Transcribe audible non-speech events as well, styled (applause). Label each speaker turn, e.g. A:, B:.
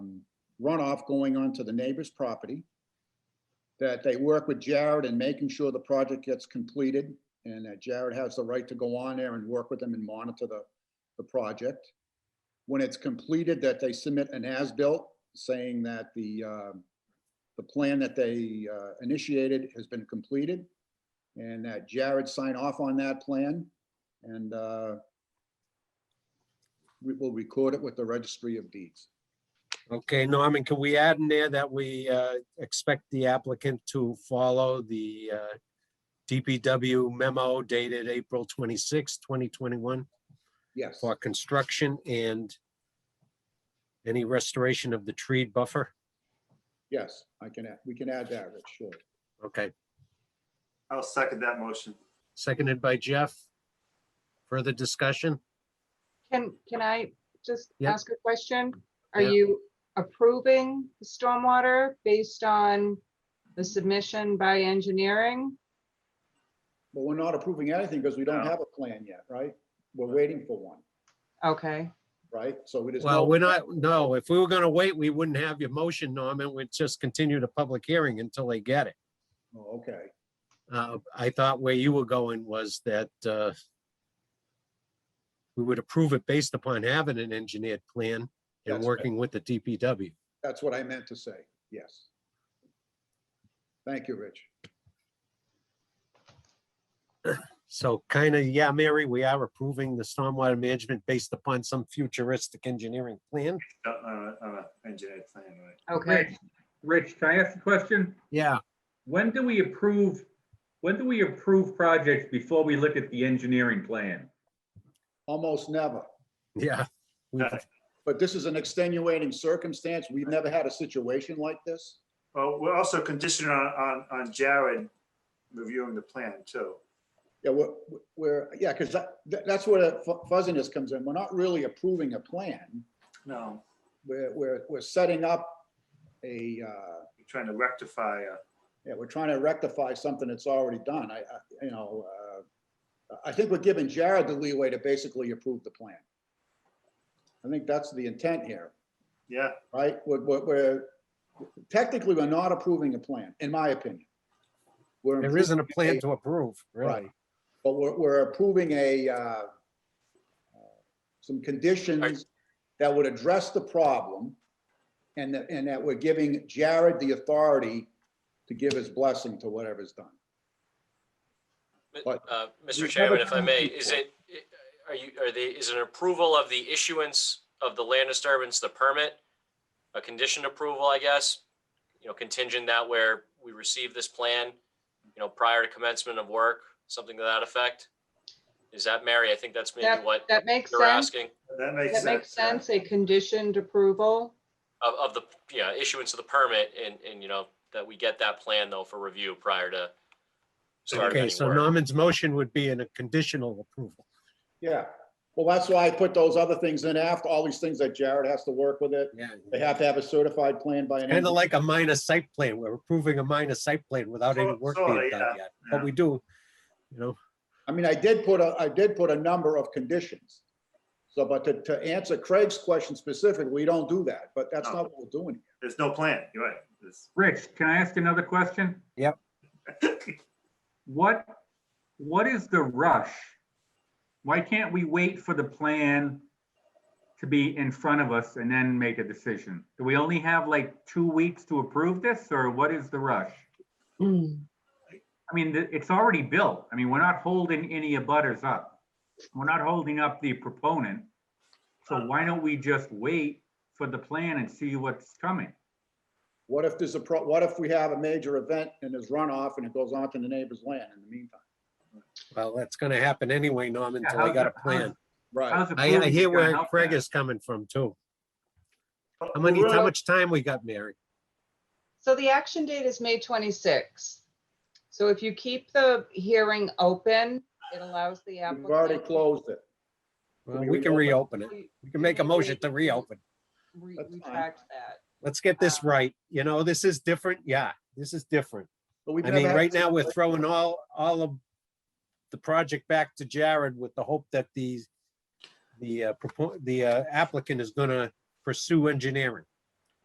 A: runoff going onto the neighbor's property, that they work with Jared in making sure the project gets completed, and that Jared has the right to go on there and work with them and monitor the, the project. When it's completed, that they submit an as-built saying that the, um, the plan that they uh, initiated has been completed, and that Jared sign off on that plan, and uh, we will record it with the registry of deeds.
B: Okay, Norman, can we add in there that we uh, expect the applicant to follow the uh, DPW memo dated April 26, 2021
A: Yes,
B: for construction and any restoration of the tree buffer?
A: yes, I can, add- we can add that, Rich, sure.
B: Okay,
C: I'll second that motion.
B: seconded by Jeff. Further discussion?
D: Can, can I just
B: Yeah.
D: ask a question? Are
B: Yeah.
D: you approving the stormwater based on the submission by engineering?
A: But we're not approving anything because we don't
C: No.
A: have a plan yet, right? We're waiting for one,
D: Okay,
A: right? So it is.
B: Well, we're not, no, if we were going to wait, we wouldn't have your motion, Norman. We'd just continue the public hearing until they get it.
A: Oh, Okay,
B: Uh, I thought where you were going was that uh, we would approve it based upon having an engineered plan
A: That's
B: and
A: right.
B: working with the DPW.
A: that's what I meant to say, yes. Thank you, Rich.
B: So kind of, yeah, Mary, we are approving the stormwater management based upon some futuristic engineering plan.
C: Uh, uh, uh, engineer plan, right?
D: okay.
E: Rich, can I ask a question?
B: Yeah,
E: When do we approve, when do we approve projects before we look at the engineering plan?
A: Almost never,
B: yeah. we-
C: Okay.
A: but this is an extenuating circumstance. We've never had a situation like this.
C: Well, we're also conditioned on, on, on Jared reviewing the plan too.
A: Yeah, we're, we're, yeah, because that, that- that's where the fu- fuzziness comes in. We're not really approving a plan.
C: No,
A: We're, we're, we're setting up a, uh,
C: we're trying to rectify, uh,
A: yeah, we're trying to rectify something that's already done. I, I, you know, uh, I think we're giving Jared the leeway to basically approve the plan. I think that's the intent here,
C: yeah,
A: right? We're, we're- we're, technically, we're not approving a plan, in my opinion. We're
B: There isn't a plan
A: a-
B: to approve,
A: Right.
B: really.
A: But we're, we're approving a, uh, uh, some conditions that would address the problem and that, and that we're giving Jared the authority to give his blessing to whatever's done.
F: Mi-
A: But
F: uh, Mr.
A: we've
F: Chairman,
A: never
F: if I may,
A: come
F: is it, are you, are the, is an approval of the issuance of the land disturbance, the permit, a conditioned approval, I guess, you know, contingent that where we receive this plan, you know, prior to commencement of work, something to that effect? Is that, Mary? I think that's maybe
D: That-
F: what
D: That makes
F: you're
D: sense.
F: asking
C: that makes
D: That
C: sense.
D: makes
C: yeah.
D: sense, a conditioned approval.
F: of, of the, yeah, issuance of the permit and, and, you know, that we get that plan though for review prior to start of
B: Okay,
F: any
B: so
F: work.
B: Norman's motion would be in a conditional approval.
A: Yeah, well, that's why I put those other things in after, all these things that Jared has to work with it.
B: Yeah.
A: They have to have a certified plan by an.
B: Kind of
A: engineer.
B: like a minor site plan. We're approving a minor site plan without any
C: Sort-
B: work
C: sorta,
B: being
C: yeah,
B: done yet.
C: yeah.
B: But we do, you know,
A: I mean, I did put a, I did put a number of conditions. So, but to, to answer Craig's question specifically, we don't do that, but that's not what we're doing.
C: There's no plan, you're right. It's-
E: Rich, can I ask another question?
B: Yep.
E: (laughs) What, what is the rush? Why can't we wait for the plan to be in front of us and then make a decision? Do we only have like two weeks to approve this or what is the rush? I mean, the- it's already built. I mean, we're not holding any abutters up. We're not holding up the proponent. So why don't we just wait for the plan and see what's coming?
A: What if there's a pro, what if we have a major event and there's runoff and it goes onto the neighbor's land in the meantime?
B: well, that's gonna happen anyway, Norman,
E: Yeah,
B: until I
E: how's
B: got a
E: the-
B: plan.
A: Right.
E: How's
B: I, I
E: approving
B: hear
E: gonna
B: where
E: help
B: Craig
E: that?
B: is coming from too.
C: But
B: How many,
C: we're
B: how
C: not-
B: much time we got, Mary?
D: So the action date is May 26th. So if you keep the hearing open, it allows the
A: We've already
D: applicant.
A: closed it.
B: Well,
A: we
B: We can reopen it.
D: to
B: We can make a motion to reopen.
D: re-
A: That's fine.
D: Retract that.
B: Let's get this
E: Uh,
D: Um,
B: right. You know, this is different. Yeah, this is different.
A: but we've
B: I
A: never
B: mean,
A: had a
B: right now, we're
A: situation-
B: throwing all, all of the project back to Jared with the hope that the, the, uh, propo- the uh, applicant is gonna pursue engineering.